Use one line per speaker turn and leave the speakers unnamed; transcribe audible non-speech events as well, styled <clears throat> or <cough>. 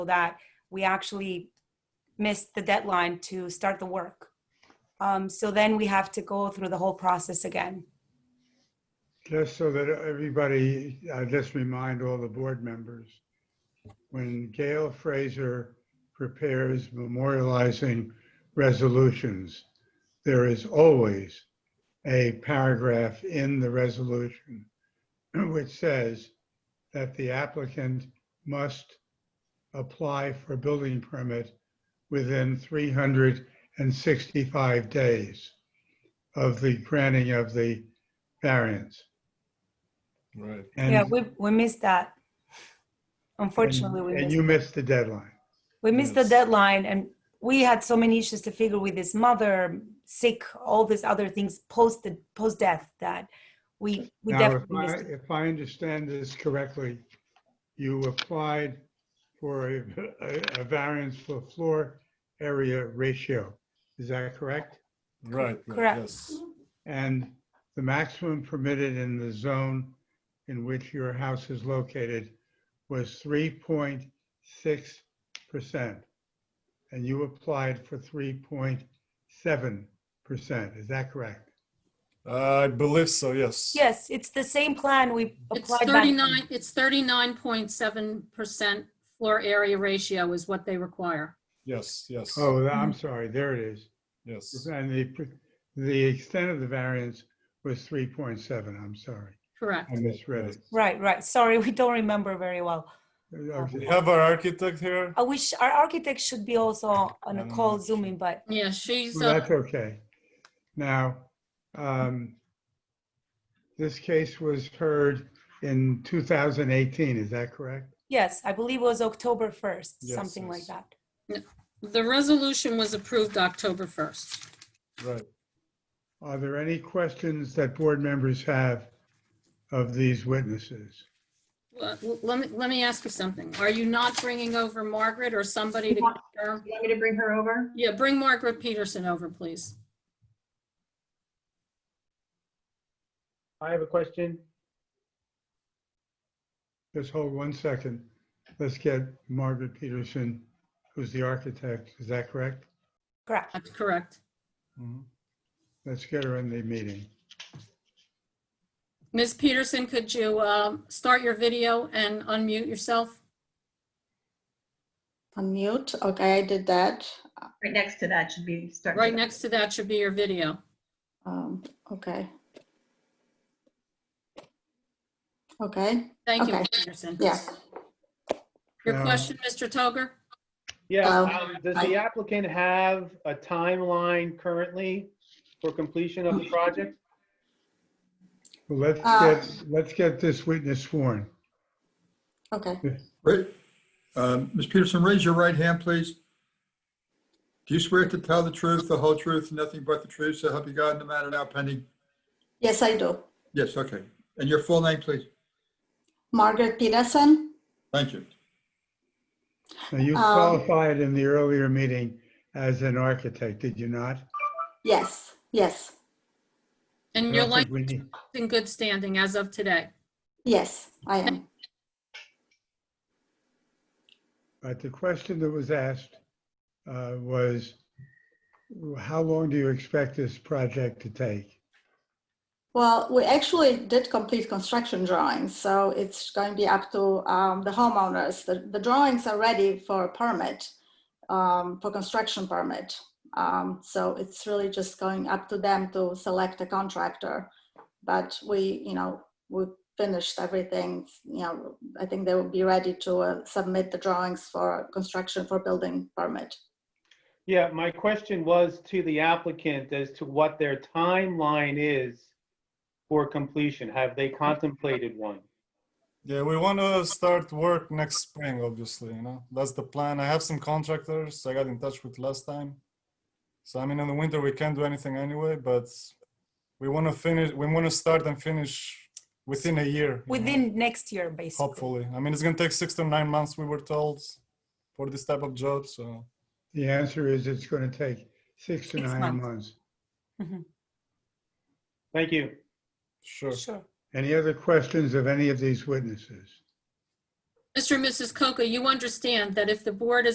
that we actually missed the deadline to start the work. Um, so then we have to go through the whole process again.
Just so that everybody, I just remind all the board members, when Gail Fraser prepares memorializing resolutions, there is always a paragraph in the resolution <clears throat> which says that the applicant must apply for building permit within 365 days of the granting of the variance.
Right.
And-
Yeah, we, we missed that. Unfortunately,
and-
we
And
missed,
you missed the deadline.
we missed the
Yes.
deadline and we had so many issues to figure with his mother, sick, all these other things post, the post death that we, we
Now, if
definitely
I,
missed. it.
if I understand this correctly, you applied for a, a- a variance for floor area ratio. Is that correct?
Right. right,
Correct.
Yes.
And the maximum permitted in the zone in which your house is located was 3.6%. And you applied for 3.7%. Is that correct?
I believe so. Yes.
Yes, it's the same plan we
It's
applied back. then.
39, it's 39.7% floor area ratio is what they require.
Yes. Yes.
Oh,
Mm-hmm.
I'm sorry. There it is.
Yes.
And the, pr- the extent of the variance was 3.7, I'm sorry.
Correct.
I misread it.
Right, right. Sorry, <laughs> we don't remember very well.
We
Okay.
have our architect here.
I wish our architect should be also on a
Um,
call zooming, but
Yeah, she's,
Well,
uh,
that's okay. Now, um, this case was heard in 2018, is that correct?
yes, I believe it was October 1st,
Yes,
something like
yes.
that.
the resolution was approved October 1st.
Right.
Are there any questions that board members have of these witnesses?
Well, Let me, let me ask you something. Are you not bringing over Margaret or somebody to confirm?
You want me to bring her over?
Yeah, bring Margaret Peterson over, please.
I have a question.
Just hold one second. Let's get Margaret Peterson, who's the architect, is that correct?
Correct.
That's correct.
Mhm.
Let's get her in the meeting.
Ms. Peterson, could you uh, start your video and unmute yourself?
Unmute, okay, I did that.
Right next to that should be starting.
Right next to that should be your video.
Um, okay. Okay,
Thank you,
Okay.
Ms. Peterson.
yeah,
Your
Um,
question, Mr. Toger?
Yeah,
Hello.
um, does the applicant have a timeline currently for completion of the project?
Well, let's
Uh,
get, let's get this witness sworn.
okay.
Right. Um, Ms. Peterson, raise your right hand, please. Do you swear to tell the truth, the whole truth, and nothing but the truth, so help you God in the matter now pending?
Yes, I do.
Yes, okay. And your full name, please?
Margaret Peterson,
Thank you.
Now, you
Um,
qualified in the earlier meeting as an architect, did you not?
yes, yes,
And
I
your
don't think
license
we need-
is in good standing as of today.
yes, I am.
But the question that was asked uh, was, how long do you expect this project to take?
Well, we actually did complete construction drawings, so it's going to be up to um, the homeowners. The, the drawings are ready for a permit, um, for construction permit. Um, so it's really just going up to them to select a contractor. But we, you know, we finished everything. You know, I think they will be ready to uh, submit the drawings for construction for building permit.
Yeah, my question was to the applicant as to what their timeline is for completion. Have they contemplated one?
Yeah, we want to start work next spring. Obviously, you know that's the plan. I have some contractors I got in touch with last time. So I mean, in the winter we can't do anything anyway, but we want to finish. We want to start and finish within a year. you know?
Within next year, basically.
Hopefully. I mean, it's going to take six to nine months, we were told, for this type of job. So,
The answer is it's going to take six to
Six
nine
months.
months.
Thank you.
sure.
Sure.
Any other questions of any of these witnesses?
Mr. and Mrs. Coca, you understand that if the board is